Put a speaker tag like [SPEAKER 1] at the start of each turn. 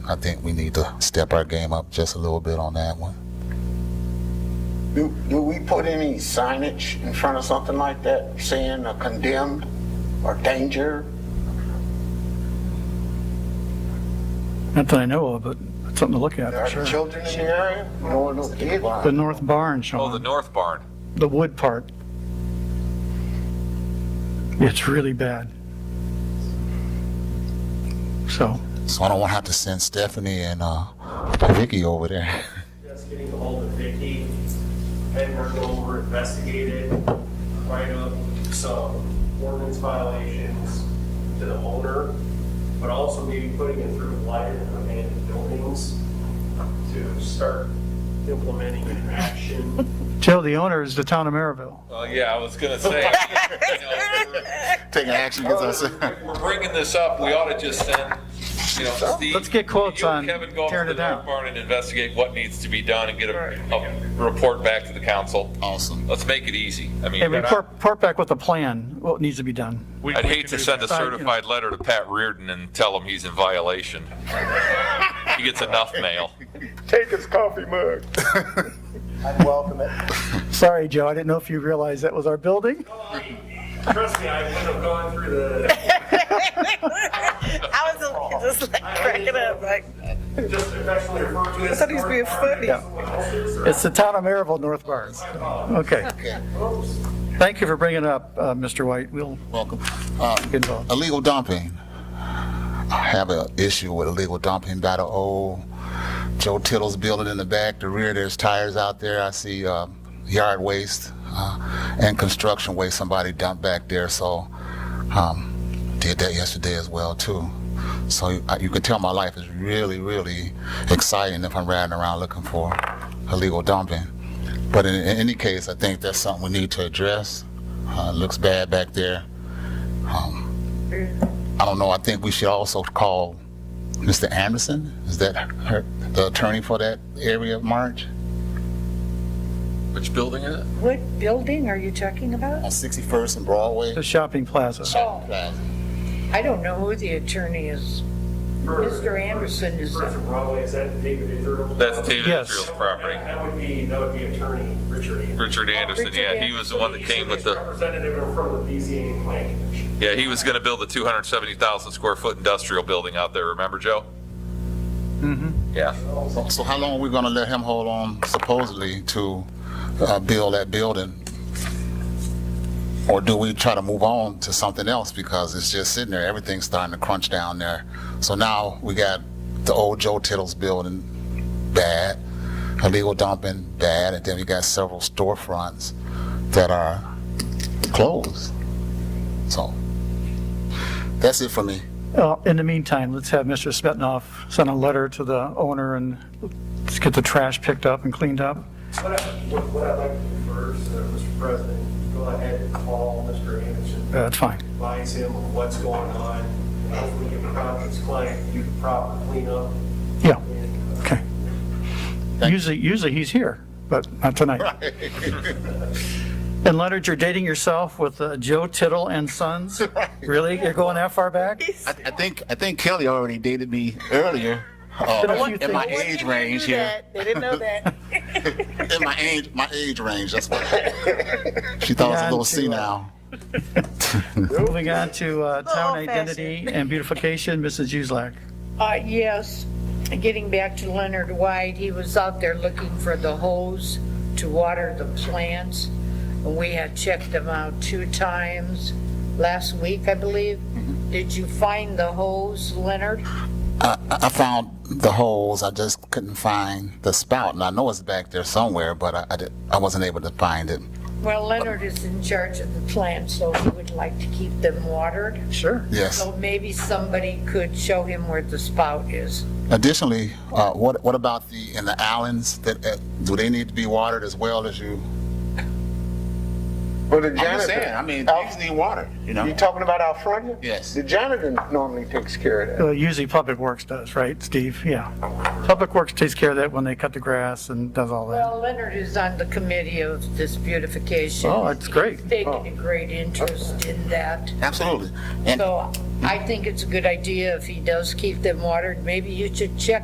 [SPEAKER 1] I think we need to step our game up just a little bit on that one.
[SPEAKER 2] Do, do we put any signage in front of something like that saying uh, condemned or danger?
[SPEAKER 3] Not that I know of, but it's something to look at,
[SPEAKER 2] Are
[SPEAKER 3] for
[SPEAKER 2] there
[SPEAKER 3] sure.
[SPEAKER 2] children in the area? No, no kids.
[SPEAKER 3] The north barn, Sean.
[SPEAKER 4] Oh, the north barn.
[SPEAKER 3] the wood part. It's really bad. So,
[SPEAKER 1] So I don't want to have to send Stephanie and uh, Vicky over there.
[SPEAKER 5] Just getting ahold of Vicky, had worked over, investigated, write up some ordinance violations to the owner, but also maybe putting it through lighter abandoned buildings to start implementing an action.
[SPEAKER 3] Joe, the owner is the town of Maryville.
[SPEAKER 4] Well, yeah, I was gonna say. you know,
[SPEAKER 1] Taking action against us.
[SPEAKER 4] we're- We're bringing this up, we ought to just send, you know, Steve.
[SPEAKER 3] Let's get quotes
[SPEAKER 4] you and
[SPEAKER 3] on
[SPEAKER 4] Kevin go up
[SPEAKER 3] tearing
[SPEAKER 4] to
[SPEAKER 3] it
[SPEAKER 4] the
[SPEAKER 3] down.
[SPEAKER 4] north barn and investigate what needs to be done and get a, a report back to the council.
[SPEAKER 1] Awesome.
[SPEAKER 4] Let's make it easy. I mean,
[SPEAKER 3] And report, report back with a plan, what needs to be done.
[SPEAKER 6] We-
[SPEAKER 4] I'd
[SPEAKER 6] we
[SPEAKER 4] hate
[SPEAKER 6] can
[SPEAKER 4] to
[SPEAKER 6] do
[SPEAKER 4] send a
[SPEAKER 3] that. Sorry, you know.
[SPEAKER 4] certified letter to Pat Reardon and tell him he's in violation. He gets enough mail.
[SPEAKER 7] Take his coffee mug.
[SPEAKER 2] I'd welcome it.
[SPEAKER 3] Sorry, Joe, I didn't know if you realized that was our building.
[SPEAKER 5] Trust me, I would have gone through the,
[SPEAKER 8] I was a- just like cracking up, like,
[SPEAKER 5] just affectionately referred to it as.
[SPEAKER 8] thought he was being funny.
[SPEAKER 3] It's the town of Maryville, North Barns. Okay. Thank you for bringing it up, uh, Mr. White. We'll
[SPEAKER 1] Welcome. Uh,
[SPEAKER 3] get involved.
[SPEAKER 1] illegal dumping. I have an issue with illegal dumping by the old Joe Tittle's building in the back, the rear. There's tires out there. I see uh, yard waste uh, and construction waste somebody dumped back there. So um, did that yesterday as well too. So uh, you can tell my life is really, really exciting if I'm riding around looking for illegal dumping. But in, in any case, I think that's something we need to address. Uh, it looks bad back there. I don't know, I think we should also call Mr. Anderson, is that her, the attorney for that area of March?
[SPEAKER 4] Which building is it?
[SPEAKER 8] what building are you talking about?
[SPEAKER 1] On 61st and Broadway?
[SPEAKER 3] The shopping plaza.
[SPEAKER 8] I don't know who the attorney is. Mr. Anderson is-
[SPEAKER 5] First of Broadway, is that David Israel?
[SPEAKER 4] That's David
[SPEAKER 3] Yes.
[SPEAKER 4] Israel's property.
[SPEAKER 5] That that would be, that would be attorney Richard Anderson.
[SPEAKER 4] Richard Anderson, yeah, he was the one that came with the.
[SPEAKER 5] Representative from the BZA Planning Commission.
[SPEAKER 4] Yeah, he was going to build a 270,000 square foot industrial building out there, remember, Joe? Mm-hmm. Yeah.
[SPEAKER 1] So how long are we gonna let him hold on supposedly to, uh, build that building? Or do we try to move on to something else because it's just sitting there, everything's starting to crunch down there. So now we got the old Joe Tittle's building, bad, illegal dumping, bad, and then we got several storefronts that are closed. So, that's it for me.
[SPEAKER 3] Uh, In the meantime, let's have Mr. Smetnoff send a letter to the owner and let's get the trash picked up and cleaned up.
[SPEAKER 5] What I- What what I'd like to do first, uh, Mr. President, go ahead and call Mr. Anderson,
[SPEAKER 3] That's fine.
[SPEAKER 5] advise him of what's going on, hopefully get a conscious client, do the proper cleanup.
[SPEAKER 3] Yeah.
[SPEAKER 5] and, uh,
[SPEAKER 3] Okay. Usually, usually he's here, but not tonight. And Leonard, you're dating yourself with uh, Joe Tittle and Sons? Really? You're going that far back?
[SPEAKER 1] I, I think, I think Kelly already dated me earlier. uh,
[SPEAKER 3] Did a few
[SPEAKER 1] in my
[SPEAKER 3] things.
[SPEAKER 1] age range here.
[SPEAKER 8] They didn't know that.
[SPEAKER 1] in my age, my age range. That's what she thought I was a little senile.
[SPEAKER 3] Moving on to uh, town
[SPEAKER 8] old-fashioned.
[SPEAKER 3] identity and beautification, Mrs. Uselak.
[SPEAKER 8] Uh, yes, getting back to Leonard White, he was out there looking for the hose to water the plants. And we had checked them out two times last week, I believe. Did you find the hose, Leonard?
[SPEAKER 1] I, I found the holes. I just couldn't find the spout, and I know it's back there somewhere, but I I, did, I wasn't able to find it.
[SPEAKER 8] Well, Leonard is in charge of the plants, so he would like to keep them watered.
[SPEAKER 3] Sure.
[SPEAKER 1] Yes.
[SPEAKER 8] So maybe somebody could show him where the spout is.
[SPEAKER 1] Additionally, uh, what what about the in the islands? That uh, do they need to be watered as well as you?
[SPEAKER 2] Well, the
[SPEAKER 1] I'm just
[SPEAKER 2] janitor.
[SPEAKER 1] saying. I mean,
[SPEAKER 2] out-
[SPEAKER 1] things need water. You know.
[SPEAKER 2] You talking about out front? here?
[SPEAKER 1] Yes.
[SPEAKER 2] The janitor normally takes care of that.
[SPEAKER 3] Uh, Usually Public Works does, right, Steve? Yeah. Public Works takes care of that when they cut the grass and does all that.
[SPEAKER 8] Well, Leonard is on the committee of this beautification.
[SPEAKER 3] Oh, that's great.
[SPEAKER 8] He's taking a great interest in that.
[SPEAKER 1] Absolutely. And
[SPEAKER 8] So I think it's a good idea if he does keep them watered. Maybe you should check